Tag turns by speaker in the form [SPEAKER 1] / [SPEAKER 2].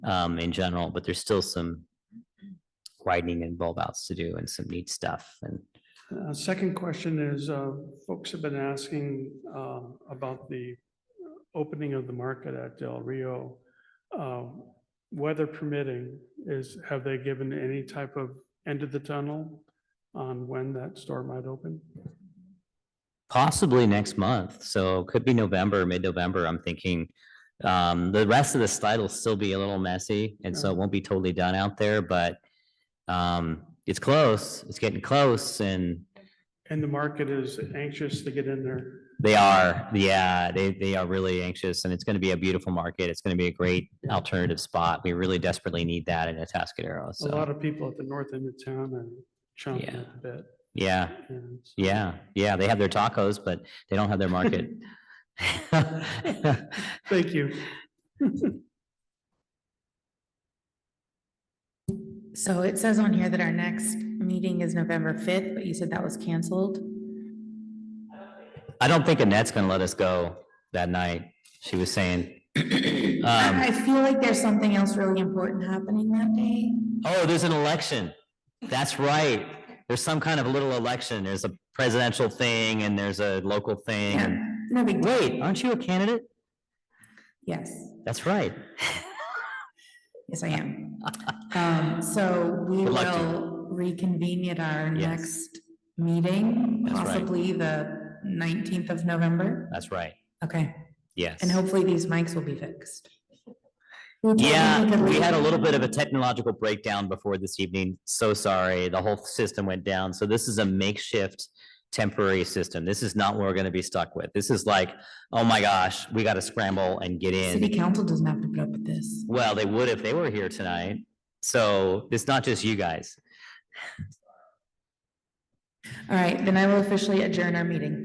[SPEAKER 1] um, in general, but there's still some widening and bulb outs to do and some neat stuff and
[SPEAKER 2] Uh, Second question is, uh, folks have been asking um, about the opening of the market at Del Rio. Um, Weather permitting is, have they given any type of end of the tunnel on when that store might open?
[SPEAKER 1] possibly next month. So could be November, mid-November, I'm thinking. Um, the rest of the slide will still be a little messy and
[SPEAKER 2] Mm.
[SPEAKER 1] so it won't be totally done out there, but um, it's close, it's getting close and
[SPEAKER 2] And the market is anxious to get in there.
[SPEAKER 1] They are, yeah, they, they are really anxious and it's going to be a beautiful market. It's going to be a great alternative spot. We really desperately need that in Atascadero.
[SPEAKER 2] A lot
[SPEAKER 1] So,
[SPEAKER 2] of people at the north end of town are chomping
[SPEAKER 1] Yeah.
[SPEAKER 2] at the bit.
[SPEAKER 1] yeah,
[SPEAKER 2] and so-
[SPEAKER 1] yeah, yeah. They have their tacos, but they don't have their market.
[SPEAKER 2] Thank you.
[SPEAKER 3] So it says on here that our next meeting is November fifth, but you said that was canceled.
[SPEAKER 1] I don't think Annette's going to let us go that night. She was saying.
[SPEAKER 3] I I
[SPEAKER 1] Um,
[SPEAKER 3] feel like there's something else really important happening that day.
[SPEAKER 1] oh, there's an election. That's right. There's some kind of little election. There's a presidential thing and there's a local thing.
[SPEAKER 3] Yeah,
[SPEAKER 1] and-
[SPEAKER 3] no big, deal.
[SPEAKER 1] Wait, aren't you a candidate?
[SPEAKER 3] yes,
[SPEAKER 1] That's right.
[SPEAKER 3] yes, I am. Um, so we
[SPEAKER 1] Good luck to you.
[SPEAKER 3] will reconvene at our
[SPEAKER 1] Yes.
[SPEAKER 3] next meeting,
[SPEAKER 1] That's right.
[SPEAKER 3] possibly the nineteenth of November.
[SPEAKER 1] That's right.
[SPEAKER 3] Okay,
[SPEAKER 1] Yes.
[SPEAKER 3] and hopefully these mics will be fixed.
[SPEAKER 1] Yeah, we had a little bit of a technological breakdown before this evening. So sorry. The whole system went down. So this is a makeshift temporary system. This is not what we're going to be stuck with. This is like, oh my gosh, we got to scramble and get
[SPEAKER 3] City
[SPEAKER 1] in.
[SPEAKER 3] council doesn't have to put up with this.
[SPEAKER 1] Well, they would if they were here tonight. So it's not just you guys.
[SPEAKER 3] All right, then I will officially adjourn our meeting.